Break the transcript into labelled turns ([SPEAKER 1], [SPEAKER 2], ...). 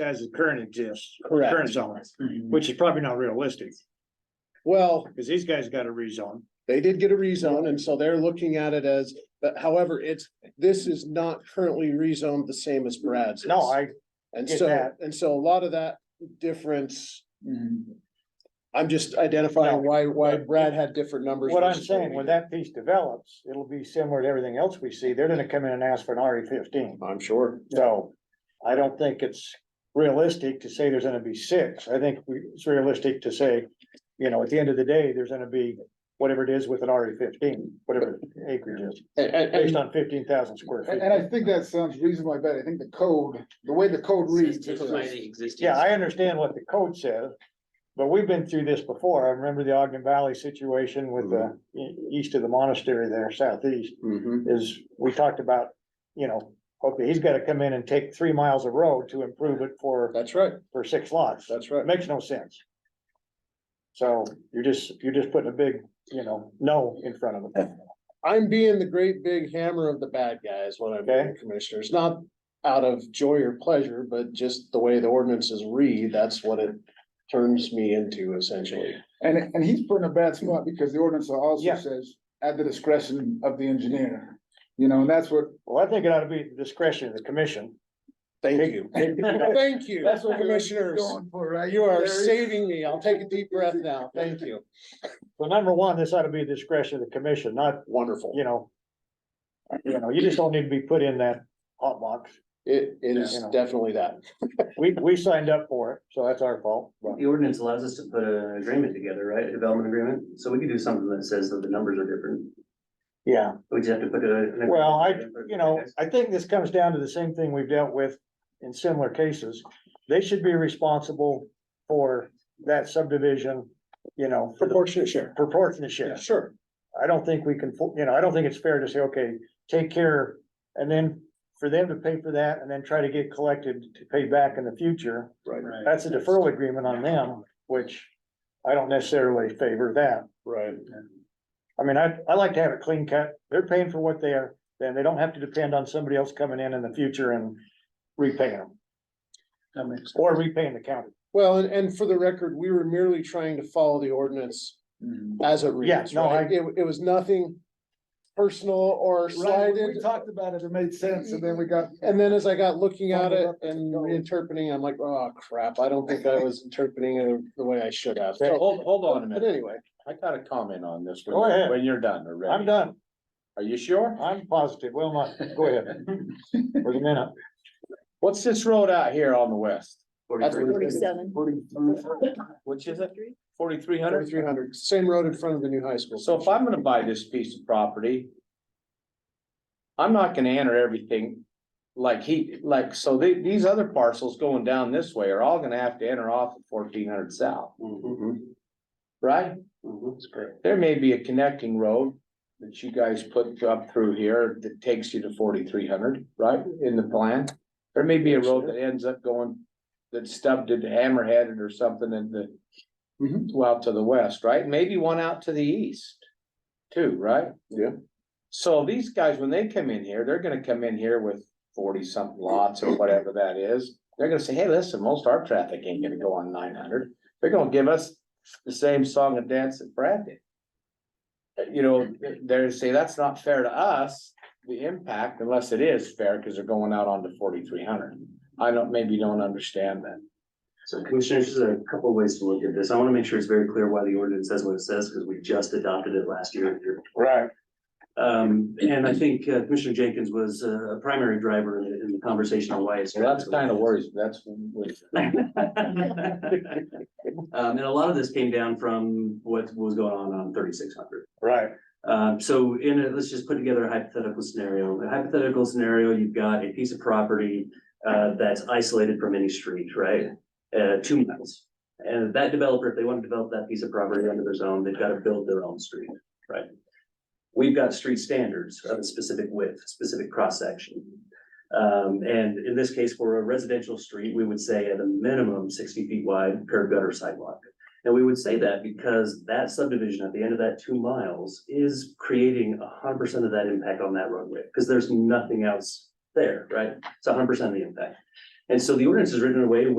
[SPEAKER 1] as the current exists,
[SPEAKER 2] Correct.
[SPEAKER 1] current zone, which is probably not realistic,
[SPEAKER 2] Well,
[SPEAKER 1] because these guys got a rezone.
[SPEAKER 2] they did get a rezone and so they're looking at it as, but however, it's, this is not currently rezoned the same as Brad's.
[SPEAKER 1] No,
[SPEAKER 2] is.
[SPEAKER 1] I,
[SPEAKER 2] And
[SPEAKER 1] get
[SPEAKER 2] so,
[SPEAKER 1] that. Mm-hmm.
[SPEAKER 2] and so a lot of that difference, I'm just identifying why, why Brad had different numbers.
[SPEAKER 1] what I'm
[SPEAKER 2] versus
[SPEAKER 1] saying,
[SPEAKER 2] we
[SPEAKER 1] when
[SPEAKER 2] did.
[SPEAKER 1] that piece develops, it'll be similar to everything else we see. They're gonna come in and ask for an RE fifteen.
[SPEAKER 2] I'm sure.
[SPEAKER 1] So I don't think it's realistic to say there's gonna be six. I think we- it's realistic to say, you know, at the end of the day, there's gonna be whatever it is with an RE fifteen, whatever acreage is,
[SPEAKER 2] And, and-
[SPEAKER 1] based
[SPEAKER 2] and
[SPEAKER 1] on fifteen thousand square
[SPEAKER 3] And,
[SPEAKER 1] feet.
[SPEAKER 3] and I think that sounds reasonable, I bet, I think the code, the way the code reads. it's just-
[SPEAKER 1] Yeah, I understand what the code says, but we've been through this before. I remember the Ogden Valley situation with the e- east of the monastery there, southeast,
[SPEAKER 2] Mhm.
[SPEAKER 1] is we talked about, you know, okay, he's gotta come in and take three miles of road to improve it for,
[SPEAKER 2] That's right,
[SPEAKER 1] for six lots. That
[SPEAKER 2] that's right.
[SPEAKER 1] makes no sense. So you're just, you're just putting a big, you know, no in front of them.
[SPEAKER 2] I'm being the great big hammer of the bad guys when I'm
[SPEAKER 1] Okay.
[SPEAKER 2] doing commissioners, not out of joy or pleasure, but just the way the ordinances read, that's what it turns me into essentially.
[SPEAKER 3] And, and he's put in a bad spot because the ordinance also
[SPEAKER 1] Yeah.
[SPEAKER 3] says at the discretion of the engineer. You know, and that's what,
[SPEAKER 1] Well, I think it ought to be the discretion of the commission.
[SPEAKER 2] Thank you. Thank you,
[SPEAKER 3] that's what we're
[SPEAKER 2] commissioners.
[SPEAKER 3] going for, right?
[SPEAKER 2] You are
[SPEAKER 3] There is-
[SPEAKER 2] saving me. I'll take a deep breath now. Thank you.
[SPEAKER 1] Well, number one, this ought to be the discretion of the commission, not
[SPEAKER 2] Wonderful.
[SPEAKER 1] you know. You know, you just don't need to be put in that hot box.
[SPEAKER 2] It, it is
[SPEAKER 1] Yeah.
[SPEAKER 2] definitely that.
[SPEAKER 1] We, we signed up for it, so that's our fault. but-
[SPEAKER 4] The ordinance allows us to put an agreement together, right, a development agreement, so we could do something that says that the numbers are different,
[SPEAKER 1] Yeah,
[SPEAKER 4] we just have to put a. an agreement
[SPEAKER 1] well, I,
[SPEAKER 4] together.
[SPEAKER 1] you know, I think this comes down to the same thing we've dealt with in similar cases. They should be responsible for that subdivision, you know, for the
[SPEAKER 2] Proportionate share.
[SPEAKER 1] proportionate share.
[SPEAKER 2] Sure.
[SPEAKER 1] I don't think we can, fo- you know, I don't think it's fair to say, okay, take care. And then for them to pay for that and then try to get collected to pay back in the future.
[SPEAKER 2] Right,
[SPEAKER 1] That's a deferral agreement on them, which I don't necessarily favor that.
[SPEAKER 2] right.
[SPEAKER 1] I mean, I, I like to have it clean cut. They're paying for what they are, then they don't have to depend on somebody else coming in in the future and repaying them. Or repaying the county.
[SPEAKER 2] Well, and, and for the record, we were merely trying to follow the ordinance as it reads,
[SPEAKER 1] no,
[SPEAKER 2] right? It, it was nothing personal or
[SPEAKER 3] Right, we
[SPEAKER 2] slighted.
[SPEAKER 3] talked about it, it made sense, and then we got.
[SPEAKER 2] And then as I got looking at it
[SPEAKER 3] Fumbled up
[SPEAKER 2] and
[SPEAKER 3] goal.
[SPEAKER 2] reinterpreting, I'm like, oh crap, I don't think I was interpreting it the way I should have.
[SPEAKER 1] Okay,
[SPEAKER 2] So-
[SPEAKER 5] Hold, hold on a
[SPEAKER 2] But
[SPEAKER 5] minute.
[SPEAKER 2] anyway,
[SPEAKER 5] I got a comment on this.
[SPEAKER 1] Go
[SPEAKER 5] when
[SPEAKER 1] ahead.
[SPEAKER 5] you're- When you're done or ready.
[SPEAKER 1] I'm done.
[SPEAKER 5] Are you sure?
[SPEAKER 1] I'm positive. Well, not, go ahead. Wait a minute.
[SPEAKER 5] What's this road out here on the west?
[SPEAKER 2] that's
[SPEAKER 4] Forty-three.
[SPEAKER 6] Forty-seven.
[SPEAKER 5] Which is it? Forty-three hundred?
[SPEAKER 2] thirty-three hundred, same road in front of the new high school.
[SPEAKER 5] So if I'm gonna buy this piece of property. I'm not gonna enter everything like he, like, so the- these other parcels going down this way are all gonna have to enter off at fourteen hundred south,
[SPEAKER 4] Mhm,
[SPEAKER 5] right?
[SPEAKER 4] mhm.
[SPEAKER 5] There may be a connecting road that you guys put up through here that takes you to forty-three hundred, right, in the plan? There may be a road that ends up going, that stubbed it, hammerheaded or something in the.
[SPEAKER 2] Mhm.
[SPEAKER 5] Well, to the west, right? Maybe one out to the east, too, right?
[SPEAKER 2] Yeah.
[SPEAKER 5] So these guys, when they come in here, they're gonna come in here with forty-something lots or whatever that is. They're gonna say, hey, listen, most of our traffic ain't gonna go on nine hundred. They're gonna give us the same song and dance that Brad did. Uh, You know, they're say, that's not fair to us, the impact, unless it is fair, because they're going out onto forty-three hundred. I don't, maybe don't understand that.
[SPEAKER 4] So commissioners, there's a couple of ways to look at this, I wanna make sure it's very clear why the ordinance says what it says, because we just adopted it last year.
[SPEAKER 1] Right.
[SPEAKER 4] Um, and I think uh, Commissioner Jenkins was uh, a primary driver in, the- in the conversation on why it's.
[SPEAKER 5] So that's kind of worrisome, that's. what-
[SPEAKER 4] Um, and a lot of this came down from what was going on on thirty-six hundred.
[SPEAKER 1] Right.
[SPEAKER 4] Um, so in it, let's just put together a hypothetical scenario. A hypothetical scenario, you've got a piece of property uh, that's isolated from any street, right? Uh, two miles. And that developer, if they want to develop that piece of property under their zone, they've got to build their own street, right? We've got street standards of a specific width, specific cross section. Um, and in this case, for a residential street, we would say at a minimum sixty feet wide curb gutter sidewalk. And we would say that because that subdivision at the end of that two miles is creating hundred percent of that impact on that roadway, because there's nothing else there, right? It's hundred percent of the impact. And so the ordinance is written in a way